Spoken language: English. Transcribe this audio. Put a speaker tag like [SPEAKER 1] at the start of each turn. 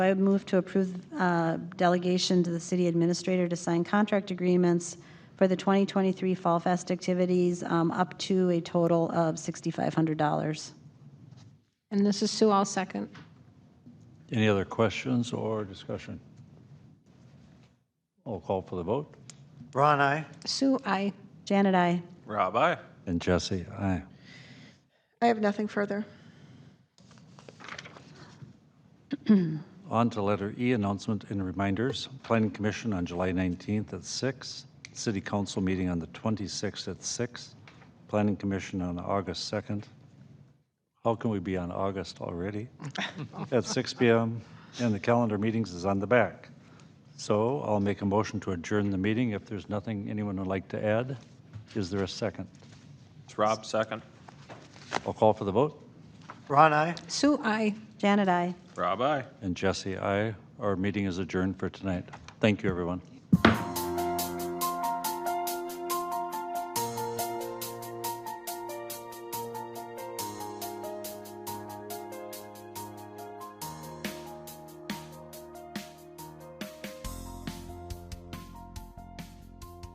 [SPEAKER 1] I would move to approve uh, delegation to the city administrator to sign contract agreements for the 2023 Fall Fest activities um, up to a total of $6,500.
[SPEAKER 2] And this is Sue, I'll second.
[SPEAKER 3] Any other questions or discussion? I'll call for the vote.
[SPEAKER 4] Ron, I.
[SPEAKER 2] Sue, I.
[SPEAKER 1] Janet, I.
[SPEAKER 5] Rob, aye.
[SPEAKER 3] And Jesse, aye.
[SPEAKER 6] I have nothing further.
[SPEAKER 3] On to letter E, announcement and reminders. Planning Commission on July 19th at 6, City Council meeting on the 26th at 6, Planning Commission on August 2nd. How can we be on August already? At 6 PM, and the calendar meetings is on the back. So I'll make a motion to adjourn the meeting if there's nothing anyone would like to add. Is there a second?
[SPEAKER 5] It's Rob, second.
[SPEAKER 3] I'll call for the vote.
[SPEAKER 4] Ron, I.
[SPEAKER 2] Sue, I.
[SPEAKER 1] Janet, I.
[SPEAKER 5] Rob, aye.
[SPEAKER 3] And Jesse, I. Our meeting is adjourned for tonight. Thank you, everyone.